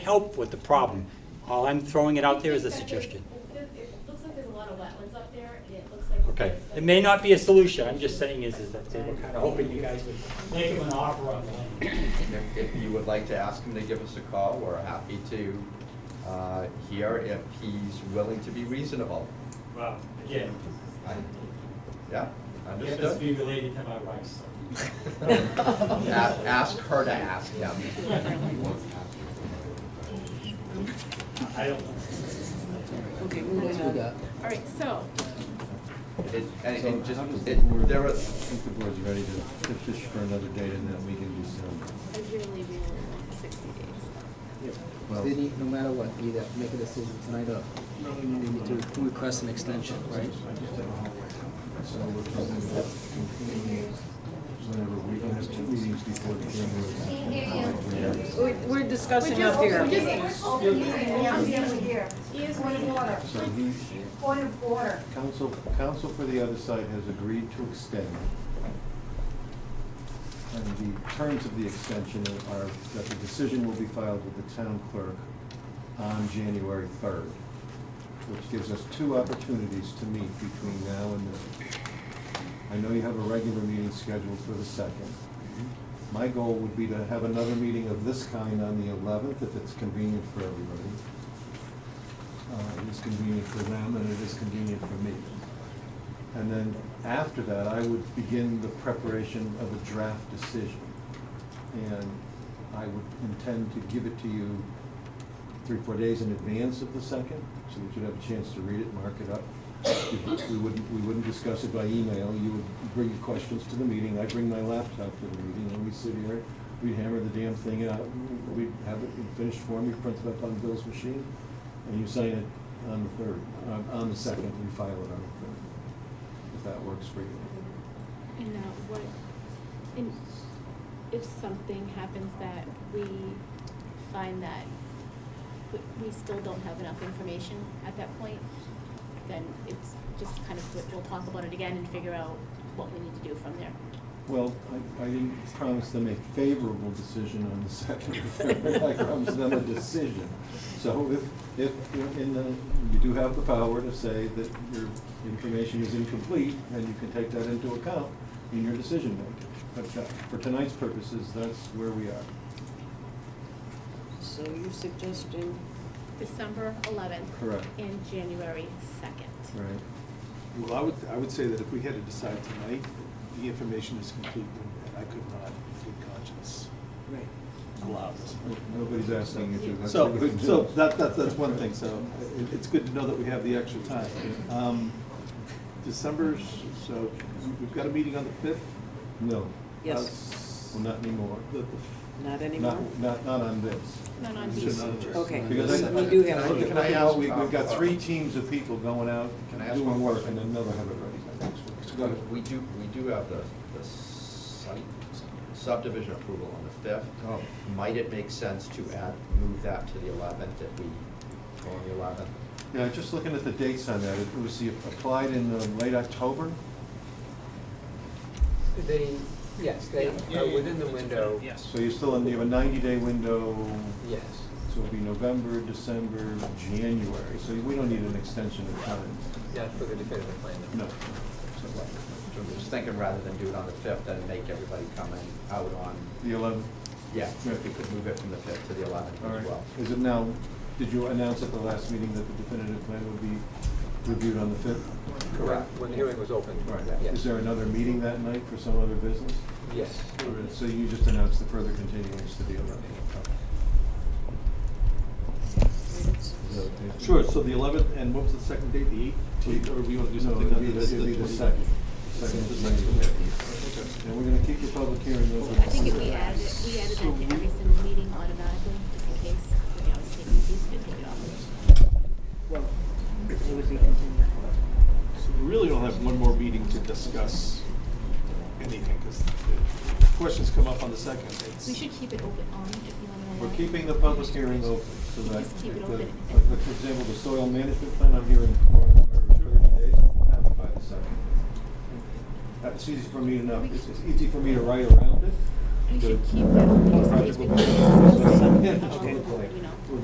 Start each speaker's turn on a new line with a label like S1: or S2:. S1: help with the problem. All I'm throwing it out there is a suggestion.
S2: It looks like there's a lot of wetlands up there, and it looks like.
S1: Okay, it may not be a solution, I'm just saying is, is that they were kind of hoping you guys would make them an offer on the land.
S3: If, if you would like to ask him to give us a call, we're happy to uh, hear if he's willing to be reasonable.
S1: Well, again,
S3: I- Yeah,
S1: it has to
S3: understood?
S1: be related to my wife, so.
S3: A- Ask her to ask him.
S1: I don't know.
S4: Okay, moving on. All right, so,
S3: It- And,
S5: So
S3: and
S5: how does
S3: just,
S5: the
S3: it-
S5: board,
S3: there
S5: I
S3: are,
S5: think the board's ready to to fish for another date and then we can do some.
S4: I really, really want sixty days.
S5: Well-
S6: They need, no matter what, either make a decision tonight or they need to request an extension, right?
S5: So we're probably about concluding whenever we don't have two meetings before the January.
S4: We're, we're discussing up
S7: We're
S4: here.
S7: just open meeting, I'm dealing here. Point of order,
S5: So the
S7: point of order.
S5: council, council for the other side has agreed to extend. And the terms of the extension are that the decision will be filed with the town clerk on January third, which gives us two opportunities to meet between now and then. I know you have a regular meeting scheduled for the second. My goal would be to have another meeting of this kind on the eleventh, if it's convenient for everybody. Uh, It is convenient for them, and it is convenient for me. And then after that, I would begin the preparation of a draft decision. And I would intend to give it to you three, four days in advance of the second, so that you'd have a chance to read it, mark it up. We wouldn't, we wouldn't discuss it by email, you would bring your questions to the meeting, I bring my laptop to the meeting, and we sit here, we hammer the damn thing out, we have it in finished form, you print it up on Bill's machine, and you sign it on the third, on- on the second, we file it on the third, if that works for you.
S4: And now uh, what, and if something happens that we find that we, we still don't have enough information at that point, then it's just kind of, we'll- we'll talk about it again and figure out what we need to do from there.
S5: Well, I, I didn't promise them a favorable decision on the second or third, I promised them a decision. So if, if, you're in the, you do have the power to say that your information is incomplete, and you can take that into account in your decision making. But that- for tonight's purposes, that's where we are.
S8: So you're suggesting,
S4: December eleventh.
S5: Correct.
S4: And January second.
S5: Right.
S9: Well, I would, I would say that if we had to decide tonight, the information is complete, and I could not, in good conscience,
S6: Right.
S9: allow this.
S5: Nobody's asking you to. that's
S9: So,
S5: what we do.
S9: so that, that, that's one thing, so it, it's good to know that we have the extra time.
S5: Uh,
S9: Um, December's, so we've got a meeting on the fifth?
S5: No, Uh,
S8: yes,
S5: well, not anymore.
S9: The,
S8: not anymore?
S5: Not, not, not on this.
S4: Not on
S9: the,
S4: these.
S9: should not have-
S8: Okay,
S5: Because I-
S8: we do have.
S5: Look
S3: Can I
S5: at
S3: ask-
S5: how we, we've got three teams of people going out,
S3: Can I ask
S5: doing
S3: one
S5: work,
S3: question?
S5: and then another hundred ready.
S3: we do, we do have the, the site subdivision approval on the fifth.
S5: Oh.
S3: Might it make sense to add, move that to the eleventh if we go on the eleventh?
S5: Yeah, just looking at the dates on that, it was the- applied in uh, late October,
S6: They, yes, they
S1: uh,
S6: are within the window. Yes.
S5: so you're still in, you have a ninety-day window,
S6: Yes.
S5: so it'll be November, December, January, so we don't need an extension of time.
S6: Not for the definitive plan.
S5: No.
S3: I'm just thinking rather than do it on the fifth, then make everybody come in out on,
S5: The eleventh,
S3: yeah, if we could move it from the fifth to the eleventh
S5: all
S3: as
S5: right.
S3: well.
S5: Is it now, did you announce at the last meeting that the definitive plan would be reviewed on the fifth?
S3: Correct.
S6: When the hearing was open.
S5: Is
S6: Yes.
S5: there another meeting that night for some other business?
S6: Yes.
S5: So you just announced the further continuance to the eleventh.
S9: sure, so the eleventh, and what was the second date, the eighteenth, or we want to do
S5: No,
S9: something
S5: it'd
S9: on
S5: be
S9: the?
S5: the, it'd be the
S9: twenty-
S5: second. Second
S9: The
S5: is
S9: second,
S5: Monday.
S9: okay.
S5: And we're gonna keep the public hearing open.
S4: I think if we added, it- we added that to every single meeting automatically, just in case, we can always take, these could take it off.
S8: Well, it would be continued.
S9: So we really don't have one more meeting to discuss anything, because questions come up on the second. It's-
S4: We should keep it open on if you want to.
S5: We're keeping the public hearing open, so that,
S4: Just
S5: the-
S4: keep it open.
S5: like, like, for example, the soil management plan, I'm hearing for thirty days, we'll have it by the second. That's easy for me to know, it's, it's easy for me to write around it, we should keep that open just in case
S4: Practical.
S5: we need to-
S4: Yeah,
S5: um,
S4: educated.
S5: You know.